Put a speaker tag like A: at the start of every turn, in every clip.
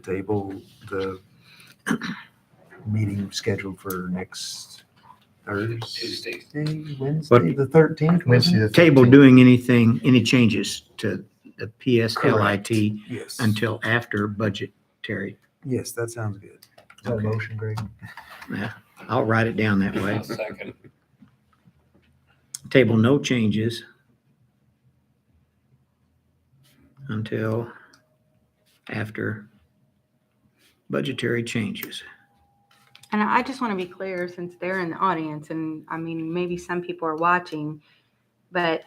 A: to table the meeting scheduled for next Thursday,
B: Tuesday.
A: Wednesday, the thirteenth?
C: Wednesday the
D: Table
C: 13th.
D: doing anything, any changes to the PSLIT
A: Yes,
D: until after budgetary.
A: yes, that sounds good.
C: Is that a motion, Greg?
D: I'll write it down that way.
B: I'll second.
D: Table no changes until after budgetary changes.
E: And I just want to be clear since they're in the audience, and I mean, maybe some people are watching, but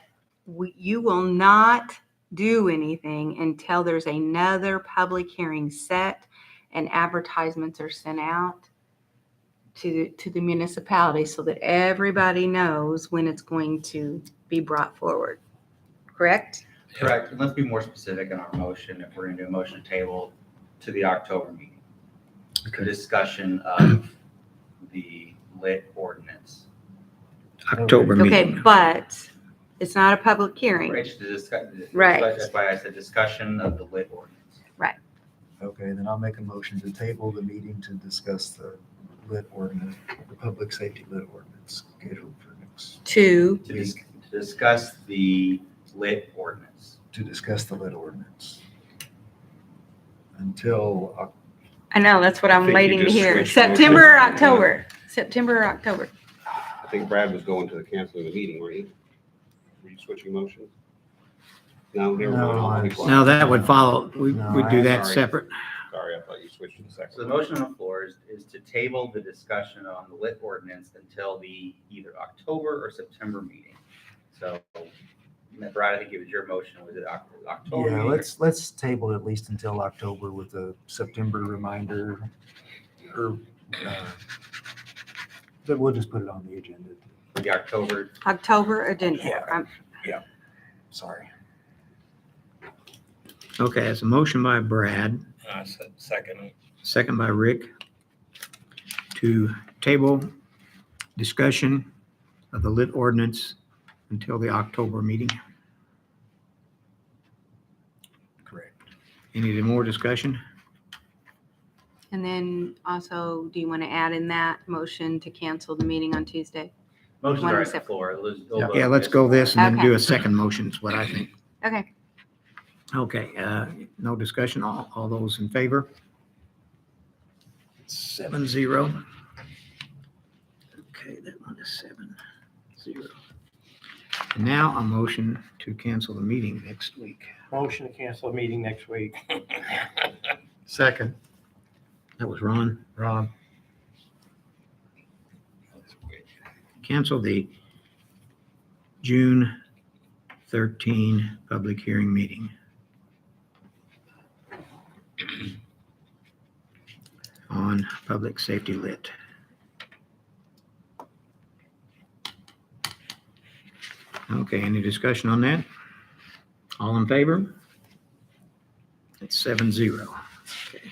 E: we, you will not do anything until there's another public hearing set and advertisements are sent out to, to the municipality so that everybody knows when it's going to be brought forward. Correct?
F: Correct, and let's be more specific in our motion, if we're gonna do a motion to table to the October meeting. The discussion of the lit ordinance.
D: October
E: Okay,
D: meeting.
E: but it's not a public hearing.
F: Rich, the discuss- the-
E: Right.
F: That's why I said discussion of the lit ordinance.
C: Okay, then I'll make a motion to table the meeting to discuss the lit ordinance, the public safety lit ordinance scheduled for next,
E: Two,
F: To dis- to discuss the lit ordinance.
C: to discuss the lit ordinance. Until, Oc-
E: I know, that's what
G: I
E: I'm
G: think you
E: waiting to
G: just
E: hear.
G: switched motions.
E: September, or October, September, or October.
G: I think Brad was going to the canceling of the meeting, were you? Were you switching motions? No, never
C: No,
G: mind.
C: I-
D: Now that would follow, we,
C: No,
D: we do
C: I'm
D: that
G: sorry.
D: separate.
G: Sorry, I thought you switched to the
F: So the
G: second.
F: motion on the floor is, is to table the discussion on the lit ordinance until the either October or September meeting. So, Brad, I think it was your motion, was it Oc- October?
A: Yeah,
F: meeting or
A: let's, let's table it at least until October with a September reminder. Or, uh, but we'll just put it on the agenda.
F: The October
E: October agenda.
A: Yeah.
E: Um,
A: Sorry.
D: Okay, it's a motion by Brad,
B: I said uh, second.
D: second by Rick, to table discussion of the lit ordinance until the October meeting.
C: correct.
D: Any more discussion?
E: And then also, do you want to add in that motion to cancel the meeting on Tuesday?
F: Motion's
E: One
F: are on the
E: separate.
F: floor. Let's go vote
D: Yeah,
F: on
D: let's go this and then
E: Okay.
D: do a second motion is what I think.
E: Okay.
D: Okay, uh, no discussion. All, all those in favor? Seven zero. Okay, that one is seven zero. And Now a motion to cancel the meeting next week.
H: Motion to cancel a meeting next week.
C: Second,
D: That was Ron.
C: Ron.
D: Cancel the June 13 public hearing meeting. On public safety lit. Okay, any discussion on that? All in favor? That's seven zero. Okay.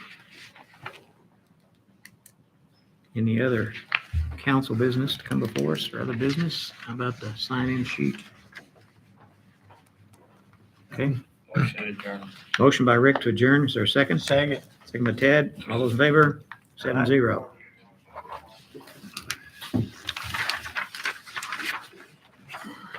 D: Any other council business to come before us or other business? How about the sign-in sheet? Okay,
B: Motion adjourned.
D: motion by Rick to adjourn. Is there a second?
H: Second.
D: Second by Ted. All those in favor? Seven zero.